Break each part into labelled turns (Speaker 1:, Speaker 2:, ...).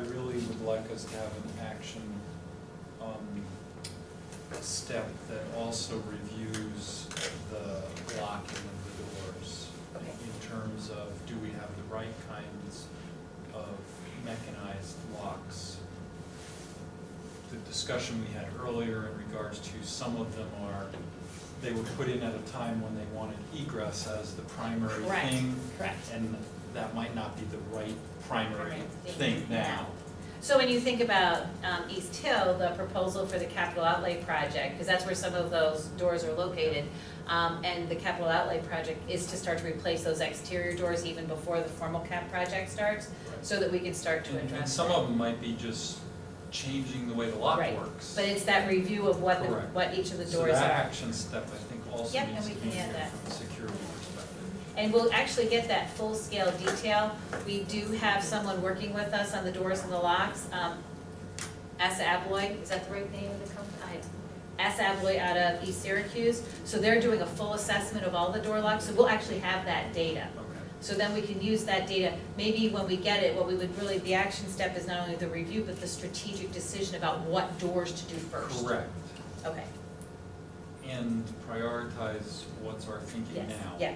Speaker 1: really would like us to have an action, um, step that also reviews the locking of the doors.
Speaker 2: Okay.
Speaker 1: In terms of, do we have the right kinds of mechanized locks? The discussion we had earlier in regards to some of them are, they were put in at a time when they wanted egress as the primary
Speaker 2: Correct,
Speaker 1: thing.
Speaker 2: correct.
Speaker 1: And that might not be the right primary
Speaker 2: Primary
Speaker 1: thing
Speaker 2: thing
Speaker 1: now.
Speaker 2: So when you think about um, East Hill, the proposal for the capital outlay project, because that's where some of those doors are located, um, and the capital outlay project is to start to replace those exterior doors even before the formal cap project starts, so that we can start to
Speaker 1: And- And
Speaker 2: address
Speaker 1: some
Speaker 2: that.
Speaker 1: of them might be just changing the way the lock
Speaker 2: Right,
Speaker 1: works.
Speaker 2: But it's that review of what, the-
Speaker 1: Correct.
Speaker 2: what each of the
Speaker 1: So
Speaker 2: doors
Speaker 1: that
Speaker 2: are.
Speaker 1: action step, I think, also
Speaker 2: Yep, and
Speaker 1: needs to
Speaker 2: we
Speaker 1: be
Speaker 2: can
Speaker 1: here
Speaker 2: add that.
Speaker 1: from a security perspective.
Speaker 2: And we'll actually get that full-scale detail. We do have someone working with us on the doors and the locks. Um, Asa Abloy, is that the right name of the company? I- Asa Abloy out of East Syracuse. So they're doing a full assessment of all the door locks, so we'll actually have that data.
Speaker 1: Okay.
Speaker 2: So then we can use that data, maybe when we get it, what we would really, the action step is not only the review, but the strategic decision about what doors to do first.
Speaker 1: Correct,
Speaker 2: Okay,
Speaker 1: and prioritize what's our thinking
Speaker 2: yes,
Speaker 1: now.
Speaker 2: yeah.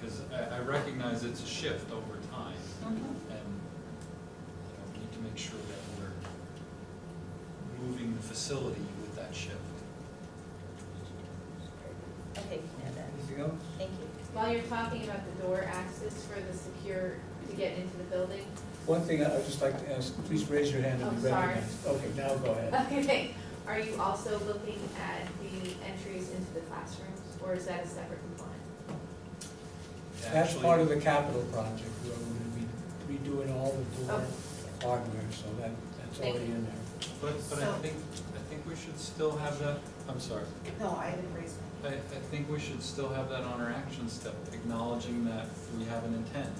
Speaker 1: Because I, I recognize it's a shift over time,
Speaker 2: Mhm.
Speaker 1: and, you know, we need to make sure that we're moving the facility with that shift.
Speaker 2: Okay, you can add that.
Speaker 3: Anything else?
Speaker 2: thank you.
Speaker 4: While you're talking about the door access for the secure, to get into the building,
Speaker 3: One thing I- I'd just like to ask, please raise your hand and be
Speaker 4: Oh, sorry.
Speaker 3: recognized. Okay, now go
Speaker 2: Uh,
Speaker 3: ahead.
Speaker 4: okay, are you also looking at the entries into the classrooms, or is that a separate component?
Speaker 3: That's part of the capital project, where we're gonna be redoing all the door hardware, so that, that's
Speaker 2: Oh. Thank
Speaker 3: already
Speaker 2: you.
Speaker 3: in there.
Speaker 1: Actually, But, but I
Speaker 5: So-
Speaker 1: think, I think we should still have that, I'm sorry,
Speaker 5: No, I didn't raise my
Speaker 1: I, I think we should still have that on our action step, acknowledging that we have an intent.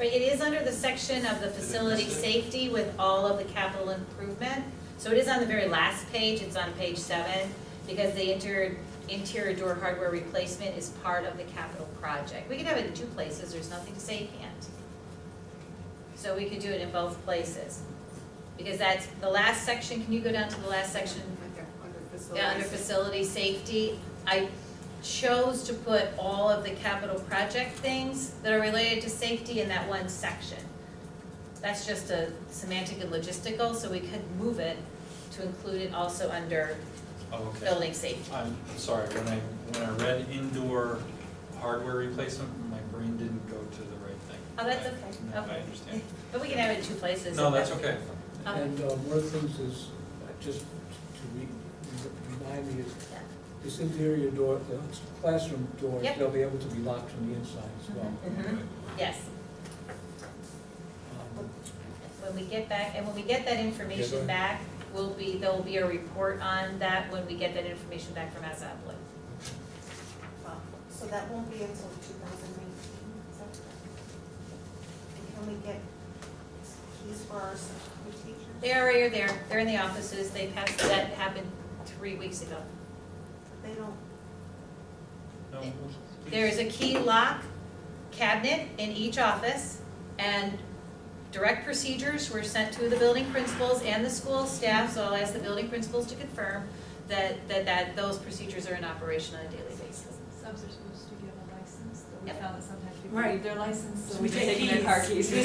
Speaker 2: Right, it is under the section of the
Speaker 1: it
Speaker 2: facility
Speaker 1: miss it?
Speaker 2: safety with all of the capital improvement. So it is on the very last page, it's on page seven, because the interior, interior door hardware replacement is part of the capital project. We could have it in two places, there's nothing to say you can't. So we could do it in both places. Because that's, the last section, can you go down to the last section?
Speaker 5: Okay, under facilities.
Speaker 2: Yeah, under facility safety, I chose to put all of the capital project things that are related to safety in that one section. That's just a semantic and logistical, so we could move it to include it also under
Speaker 1: Oh, okay.
Speaker 2: building safety.
Speaker 1: I'm sorry, when I, when I read indoor hardware replacement, my brain didn't go to the right thing.
Speaker 2: Oh, that's
Speaker 1: I-
Speaker 2: okay.
Speaker 1: no, I
Speaker 2: Okay.
Speaker 1: understand.
Speaker 2: But we can have it in two places.
Speaker 1: No,
Speaker 2: if
Speaker 1: that's okay.
Speaker 2: Okay.
Speaker 3: And uh, one of the things is, uh, just to re- re- remind me, is
Speaker 2: Yeah.
Speaker 3: this interior door, the classroom doors,
Speaker 2: Yep.
Speaker 3: they'll be able to be locked from the inside as well.
Speaker 2: Mhm. Yes, Mm-hmm.
Speaker 3: Um,
Speaker 2: when we get back, and when we get that
Speaker 3: Yeah,
Speaker 2: information
Speaker 3: go
Speaker 2: back, will be, there will be a report on that when we get that information back from Azabla.
Speaker 5: Wow. Um, So that won't be until two thousand nineteen, is that correct? And can we get keys for our substitute teachers?
Speaker 2: They already are there, they're in the offices, they passed, that happened three weeks ago.
Speaker 5: But They don't,
Speaker 1: No, well,
Speaker 2: There is
Speaker 1: please.
Speaker 2: a key lock cabinet in each office, and direct procedures were sent to the building principals and the school staff, so I'll ask the building principals to confirm that, that, that those procedures are in operation on a daily basis.
Speaker 6: Subs are supposed to give a license, but
Speaker 2: Yep.
Speaker 6: we found that sometimes people
Speaker 7: Right.
Speaker 6: leave their license, so
Speaker 7: So
Speaker 6: we
Speaker 7: we
Speaker 6: just
Speaker 7: take
Speaker 6: take their
Speaker 7: keys.
Speaker 6: car keys.
Speaker 7: We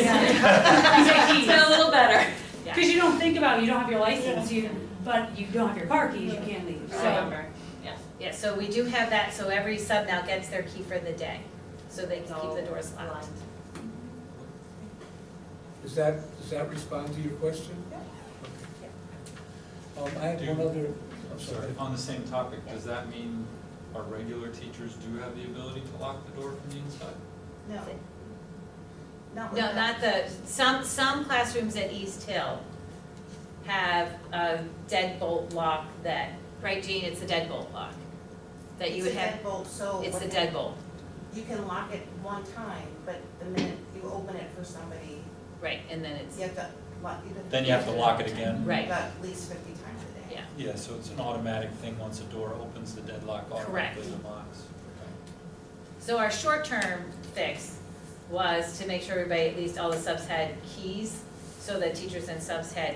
Speaker 6: It's been a little better.
Speaker 2: Yeah.
Speaker 7: Because you don't think about, it, you don't have your license, you, but you don't have your car keys, you can't leave,
Speaker 2: So-
Speaker 7: so.
Speaker 2: Yeah, so we do have that, so every sub now gets their key for the day, so they can keep the doors locked.
Speaker 3: Does that, does that respond to your question?
Speaker 5: Yeah.
Speaker 3: Um, I
Speaker 1: Do-
Speaker 3: have one other,
Speaker 1: I'm sorry, on the same topic, does that mean our regular teachers do have the ability to lock the door from the inside?
Speaker 5: no. Not with
Speaker 2: No,
Speaker 5: that.
Speaker 2: not the, some, some classrooms at East Hill have a deadbolt lock that, right, Jean, it's a deadbolt lock? That you would have,
Speaker 5: It's a deadbolt, so.
Speaker 2: it's the
Speaker 5: when-
Speaker 2: deadbolt,
Speaker 5: You can lock it one time, but the minute you open it for somebody,
Speaker 2: right, and then it's,
Speaker 5: you have to lock.
Speaker 1: Then you have to lock it again?
Speaker 2: right,
Speaker 5: About at least fifty times a day.
Speaker 2: yeah.
Speaker 1: Yeah, so it's an automatic thing, once a door opens, the deadlock
Speaker 2: Correct.
Speaker 1: automatically unlocks.
Speaker 2: So our short-term fix was to make sure everybody, at least all the subs had keys, so that teachers and subs had